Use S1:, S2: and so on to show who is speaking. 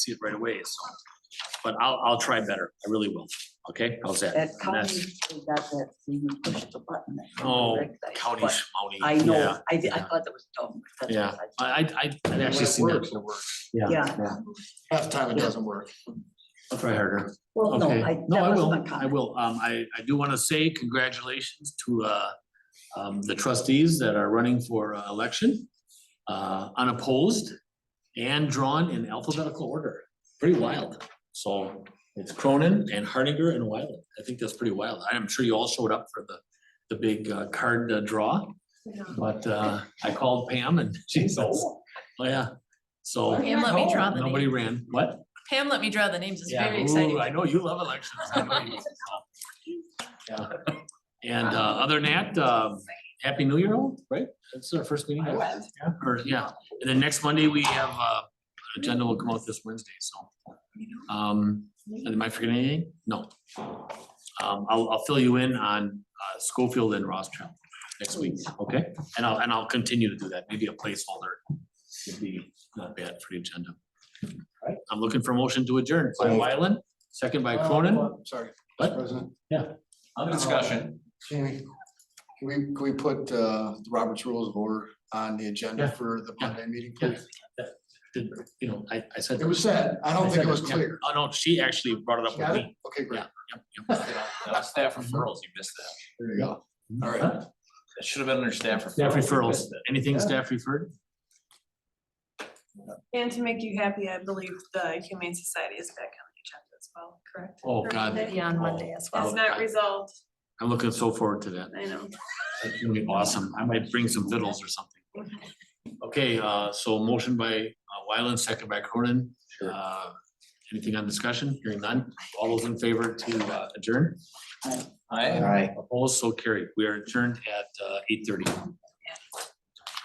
S1: see it right away, so. But I'll, I'll try better. I really will. Okay, how's that?
S2: That
S1: And
S2: county,
S1: that's-
S2: they got that, so you push the button. that kind of
S1: Oh,
S2: recognize,
S1: County,
S2: but
S1: Schmouty.
S2: I
S1: Yeah,
S2: know, I, did- I
S1: yeah.
S2: thought that was dumb. 'cause that's
S1: Yeah.
S2: what
S1: I, I, I- I'd actually seen that. Yeah.
S2: Yeah,
S3: Half the time it doesn't work.
S1: I'll try harder.
S2: well, no,
S1: Okay.
S2: I,
S1: No,
S2: that
S1: I
S2: was
S1: will.
S2: my
S1: I
S2: comment.
S1: will. Um, I, I do want to say congratulations to, uh, um, the trustees that are running for uh, election, uh, unopposed and drawn in alphabetical order. Pretty wild. So it's Cronin and Hardinger and Wyland. I think that's pretty wild. I'm sure you all showed up for the, the big uh, card uh, draw. But, uh, I called Pam and she says, oh yeah, so. Oh,
S4: Pam let me draw the
S1: Nobody
S4: name.
S1: ran. What?
S4: Pam let me draw the names. It's
S1: Yeah,
S4: very
S1: ooh,
S4: exciting.
S1: I know you love elections. I know you do. Yeah. And uh, other than that, um, happy new year, all, right? That's our first meeting. Yeah, or, yeah, and then next Monday, we have, uh, agenda will come out this Wednesday, so. Um, am I forgetting anything? No. Um, I'll, I'll fill you in on, uh, Schofield and Rothschild next week, okay? And I'll, and I'll continue to do that. Maybe a placeholder would be not bad for the agenda. I'm looking for a motion to adjourn. By Wyland, second by Cronin.
S3: Uh, Sorry.
S1: What?
S3: President.
S1: Other
S3: discussion. Jamie, can we, can we put uh, the Robert's Rules of Order on the agenda
S1: Yeah.
S3: for the
S1: Yeah.
S3: Monday meeting,
S1: Yeah.
S3: please?
S1: Did, you know, I, I said.
S3: It was said, I don't think it was
S1: Yeah.
S3: clear.
S1: Oh, no, she actually brought it up with
S3: Got it?
S1: me.
S3: Okay, great.
S1: Yeah. Yep, yep.
S5: That was staff referrals, you missed that.
S3: There you go. All right.
S1: Mm-hmm. Huh?
S5: That should have been under staff referrals.
S1: Staff
S5: You
S1: referrals,
S5: missed that.
S1: anything staff referred?
S6: And to make you happy, I believe the Humane Society is back on the agenda as well, correct?
S1: Oh, God, Oh,
S4: Maybe on Monday as well.
S6: It's not resolved,
S1: I'm looking so forward to that.
S6: I know.
S1: That's gonna be awesome. I might bring some fiddles or something. Okay, uh, so motion by uh, Wyland, second by Cronin. Uh, Anything on discussion? Hearing none. All those in favor to uh, adjourn?
S5: Aye.
S1: Opposed, so carried. We are adjourned at uh, eight thirty.